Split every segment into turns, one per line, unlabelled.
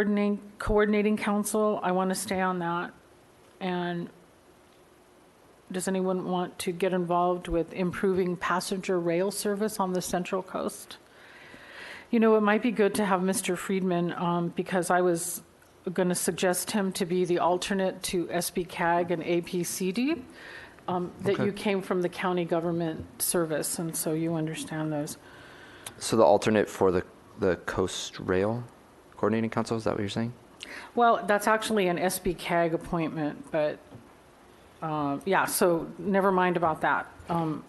Coordinating, coordinating council, I want to stay on that. And does anyone want to get involved with improving passenger rail service on the Central Coast? You know, it might be good to have Mr. Friedman, um, because I was going to suggest him to be the alternate to SB CAG and APCD, um, that
Okay.
you came from the county government service, and so you understand those.
So the alternate for the, the Coast Rail Coordinating Council, is that what you're saying?
Well, that's actually an SB CAG appointment, but, uh, yeah, so never mind about that. Um,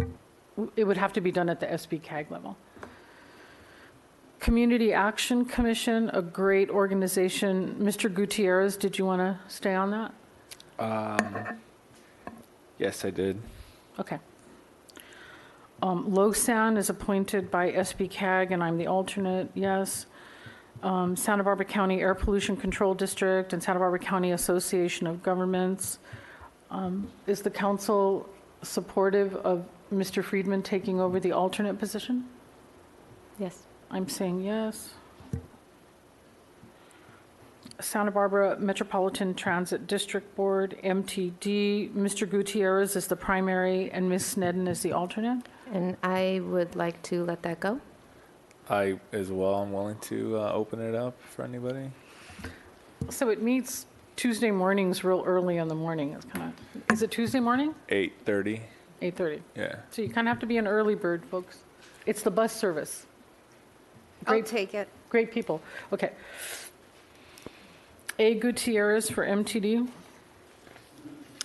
w- It would have to be done at the SB CAG level. Community Action Commission, a great organization. Mr. Gutierrez, did you want to stay on that?
Yes, I did.
Okay. Um, LoSAN is appointed by SB CAG, and I'm the alternate, yes. Um, Santa Barbara County Air Pollution Control District and Santa Barbara County Association of Governments. Um, Is the council supportive of Mr. Friedman taking over the alternate position?
Yes.
I'm saying yes. Santa Barbara Metropolitan Transit District Board, MTD, Mr. Gutierrez is the primary and Ms. Sneddon is the alternate.
And I would like to let that go.
I as well. I'm willing to uh, open it up for anybody.
So it meets Tuesday mornings real early in the morning. It's kind of, is it Tuesday morning?
Eight thirty.
8:30.
Yeah.
So you kind of have to be an early bird, folks. It's the bus service.
I'll
Great-
take it.
Great people. Okay. A Gutierrez for MTD.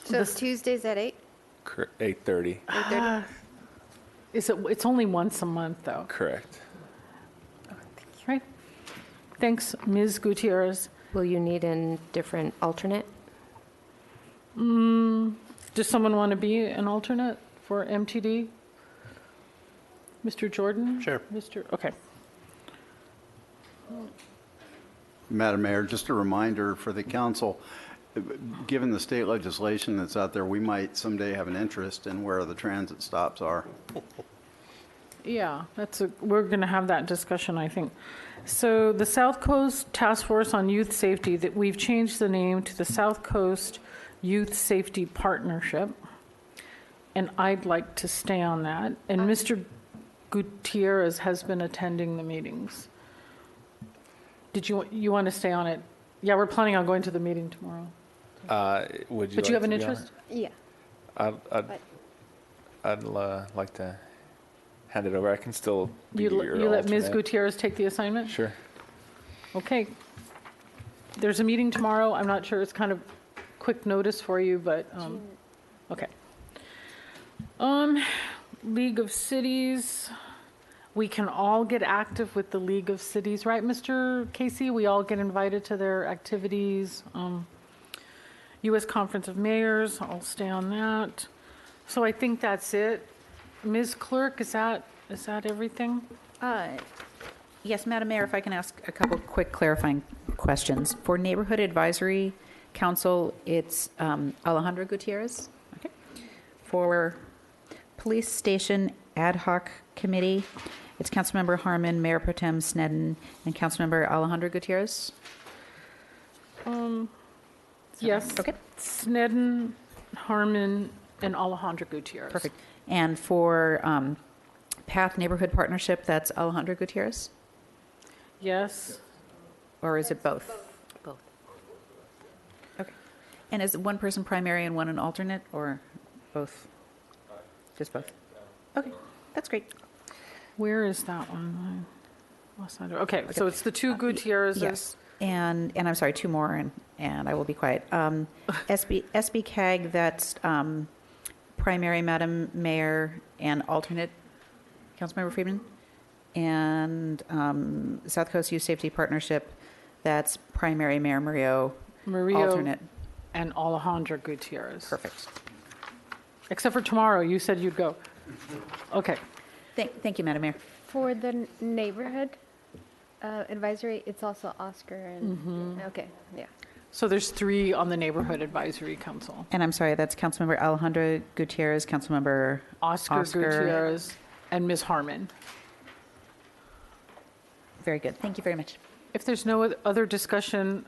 So Tuesdays at 8?
Eight thirty.
Is it, it's only once a month, though,
Correct.
right? Thanks, Ms. Gutierrez.
Will you need a different alternate?
Does someone want to be an alternate for MTD? Mr. Jordan?
Sure.
Mr., okay.
Madam Mayor, just a reminder for the council, uh, given the state legislation that's out there, we might someday have an interest in where the transit stops are.
Yeah, that's a, we're going to have that discussion, I think. So the South Coast Task Force on Youth Safety, that we've changed the name to the South Coast Youth Safety Partnership. And I'd like to stay on that. And Mr. Gutierrez has been attending the meetings. Did you, you want to stay on it? Yeah, we're planning on going to the meeting tomorrow.
Uh, would you?
But you
like
have an
to be on
interest?
Yeah.
it? I'd I'd,
But-
I'd uh, like to hand it over. I can still. Be
You,
your
l- you let Ms.
alternate.
Gutierrez take the assignment?
Sure.
Okay. There's a meeting tomorrow. I'm not sure, it's kind of quick notice for you, but, um, okay. Um, League of Cities, we can all get active with the League of Cities, right, Mr. Casey? We all get invited to their activities. Um, US Conference of Mayors, I'll stay on that. So I think that's it. Ms. Clerk, is that, is that everything?
Uh, Yes, Madam Mayor, if I can ask a couple quick clarifying questions. For Neighborhood Advisory Council, it's um, Alejandro Gutierrez. Okay. For Police Station Ad Hoc Committee, it's Councilmember Harmon, Mayor Pro Tem Sneddon, and Councilmember Alejandro Gutierrez.
Um, Yes.
Okay.
Sneddon, Harmon, and Alejandro Gutierrez.
Perfect. And for um, Path Neighborhood Partnership, that's Alejandro Gutierrez?
Yes.
Or is it both? Both. Okay. And is it one person primary and one an alternate, or both? Just both? Okay, that's great.
Where is that one? I lost that. Okay, so it's the two Gutierrez's.
Uh, Yes. And, and I'm sorry, two more, and, and I will be quiet. Um, SB, SB CAG, that's um, primary, Madam Mayor, and alternate, Councilmember Friedman? And um, South Coast Youth Safety Partnership, that's primary, Mayor Murillo,
Murillo.
alternate.
And Alejandro Gutierrez.
Perfect.
Except for tomorrow, you said you'd go. Okay.
Thank, thank you, Madam Mayor.
For the n- neighborhood uh, advisory, it's also Oscar and, okay, yeah.
So there's three on the Neighborhood Advisory Council.
And I'm sorry, that's Councilmember Alejandro Gutierrez, Councilmember
Oscar Gutierrez and Ms. Harmon.
Very good. Thank you very much.
If there's no oth- other discussion,